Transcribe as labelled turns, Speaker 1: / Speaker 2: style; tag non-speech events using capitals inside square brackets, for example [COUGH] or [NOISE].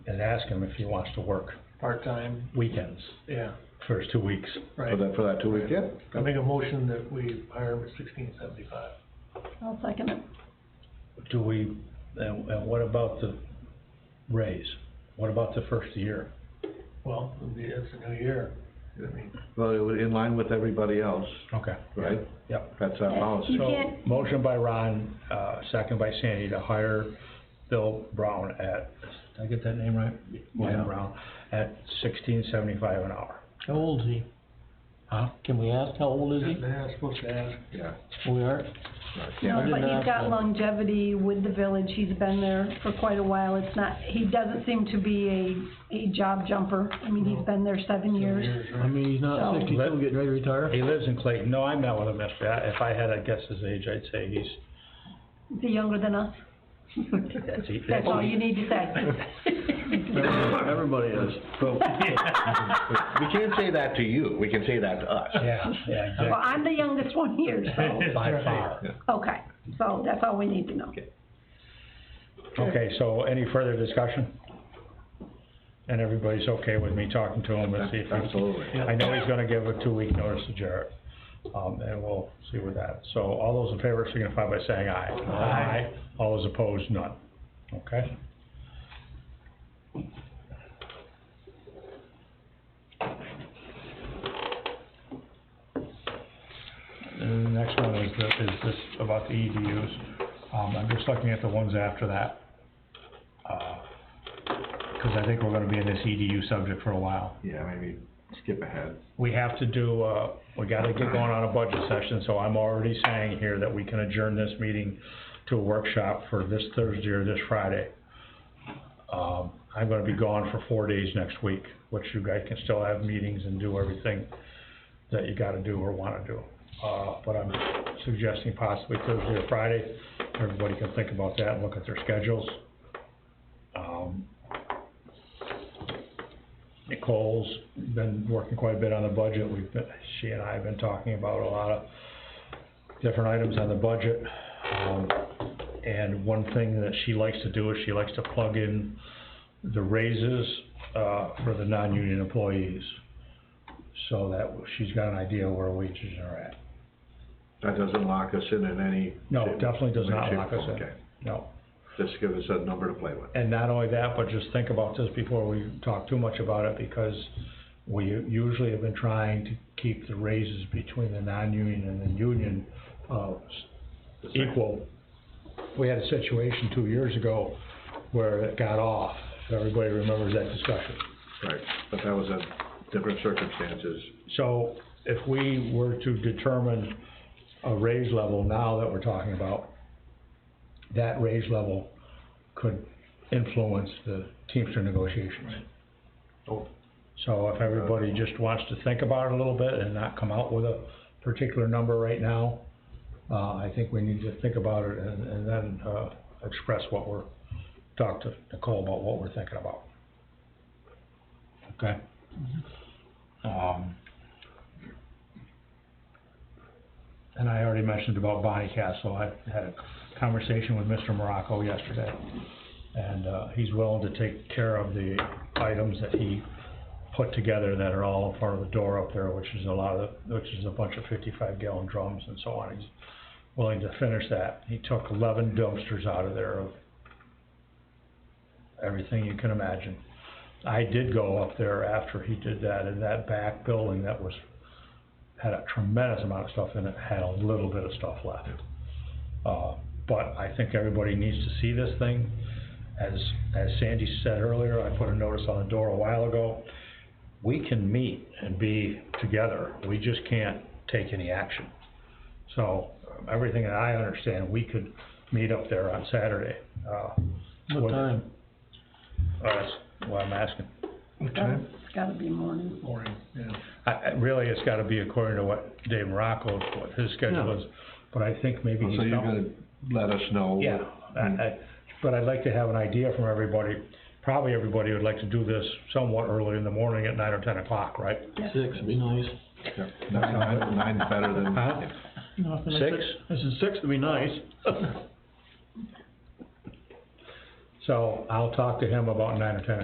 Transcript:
Speaker 1: and ask him if he wants to work
Speaker 2: part-time,
Speaker 1: weekends,
Speaker 2: yeah,
Speaker 1: first two weeks.
Speaker 2: right.
Speaker 3: For that, for that two week, yeah.
Speaker 2: I make a motion that we hire him at sixteen seventy-five.
Speaker 4: I'll second it.
Speaker 1: Do we, and, and what about the raise? What about the first year?
Speaker 2: Well, it'll be, it's a new year, I mean,
Speaker 3: Well, it was in line with everybody else,
Speaker 1: Okay.
Speaker 3: right?
Speaker 1: Yep.
Speaker 3: That's our policy.
Speaker 4: You
Speaker 1: So,
Speaker 4: can't-
Speaker 1: motion by Ron, uh, second by Sandy to hire Bill Brown at, did I get that name right? William Brown, at sixteen seventy-five an hour.
Speaker 5: How old is he?
Speaker 1: Huh?
Speaker 5: Can we ask how old is
Speaker 2: they asked, supposed to ask,
Speaker 3: Yeah.
Speaker 5: he? We are?
Speaker 3: right, yeah.
Speaker 4: No,
Speaker 5: did
Speaker 4: but
Speaker 5: not
Speaker 4: he's
Speaker 5: know.
Speaker 4: got longevity with the village, he's been there for quite a while, it's not, he doesn't seem to be a, a job jumper. I mean, he's been there seven
Speaker 2: new
Speaker 4: years.
Speaker 2: year's,
Speaker 5: I
Speaker 2: right?
Speaker 5: mean, he's not
Speaker 4: So-
Speaker 5: sixty-two, getting ready to retire?
Speaker 1: He lives in Clayton. No, I met with him yesterday. If I had to guess his age, I'd say he's,
Speaker 4: Is he younger than us?
Speaker 1: that's, he-
Speaker 4: That's all you
Speaker 1: that's-
Speaker 4: need to
Speaker 1: [LAUGHS]
Speaker 4: say.
Speaker 5: Everybody is.
Speaker 3: Well, We can't say that to you, we can say that to us.
Speaker 1: Yeah, yeah,
Speaker 4: Well,
Speaker 1: exactly.
Speaker 4: I'm the youngest one here, so,
Speaker 1: [LAUGHS] By far.
Speaker 4: okay, so that's all we need to know.
Speaker 1: Okay, so any further discussion? And everybody's okay with me talking to him and see if he-
Speaker 3: Absolutely.
Speaker 1: I know he's gonna give a two-week notice to Jarrett, um, and we'll see with that. So all those in favor signify by saying aye. Aye. All those opposed, none. Okay? And the next one is, the- is this about the EDUs. Um, I'm just looking at the ones after that. Uh, Cause I think we're gonna be in this EDU subject for a while
Speaker 3: Yeah, maybe skip ahead.
Speaker 1: we have to do, uh, we gotta get going on a budget session, so I'm already saying here that we can adjourn this meeting to a workshop for this Thursday or this Friday. Um, I'm gonna be gone for four days next week, which you guys can still have meetings and do everything that you gotta do or wanna do. Uh, but I'm suggesting possibly Thursday or Friday, everybody can think about that and look at their schedules. Um, Nicole's been working quite a bit on the budget, we've been, she and I have been talking about a lot of different items on the budget. Um, and one thing that she likes to do is she likes to plug in the raises, uh, for the non-union employees. So that she's got an idea where wages are at.
Speaker 3: That doesn't lock us in in any.
Speaker 1: No,
Speaker 3: shape-
Speaker 1: definitely does not
Speaker 3: shape,
Speaker 1: lock us in,
Speaker 3: okay.
Speaker 1: no.
Speaker 3: Just give us a number to play with.
Speaker 1: And not only that, but just think about this before we talk too much about it, because we usually have been trying to keep the raises between the non-union and the union, uh,
Speaker 3: The same.
Speaker 1: equal. We had a situation two years ago where it got off, if everybody remembers that discussion.
Speaker 3: Right, but that was a different circumstances.
Speaker 1: So if we were to determine a raise level now that we're talking about, that raise level could influence the Teamster negotiations.
Speaker 3: Oh.
Speaker 1: So if everybody just wants to think about it a little bit and not come out with a particular number right now, uh, I think we need to think about it and, and then, uh, express what we're, talk to Nicole about what we're thinking about. Okay? Um, and I already mentioned about Bonnie Castle, I had a conversation with Mr. Morocco yesterday. And, uh, he's willing to take care of the items that he put together that are all in front of the door up there, which is a lot of, which is a bunch of fifty-five gallon drums and so on. He's willing to finish that. He took eleven dumpsters out of there of everything you can imagine. I did go up there after he did that, in that back building that was, had a tremendous amount of stuff in it, had a little bit of stuff left. Uh, but I think everybody needs to see this thing. As, as Sandy said earlier, I put a notice on the door a while ago. We can meet and be together, we just can't take any action. So, um, everything that I understand, we could meet up there on Saturday, uh.
Speaker 5: What
Speaker 1: with-
Speaker 5: time?
Speaker 1: Oh, that's what I'm asking.
Speaker 2: Okay.
Speaker 4: It's gotta be morning.
Speaker 2: Morning, yeah.
Speaker 1: I, I, really, it's gotta be according to what Dave Morocco, what his schedule is, but I think maybe
Speaker 3: So
Speaker 1: he's.
Speaker 3: you're
Speaker 1: not-
Speaker 3: gonna let us know?
Speaker 1: Yeah, I, I, but I'd like to have an idea from everybody. Probably everybody would like to do this somewhat early in the morning at nine or ten o'clock, right?
Speaker 5: Six would be nice.
Speaker 3: Yeah, Nine, nine, nine's better than,
Speaker 1: Huh?
Speaker 5: No, I said-
Speaker 1: Six?
Speaker 5: I said six would be nice.
Speaker 1: So I'll talk to him about nine or ten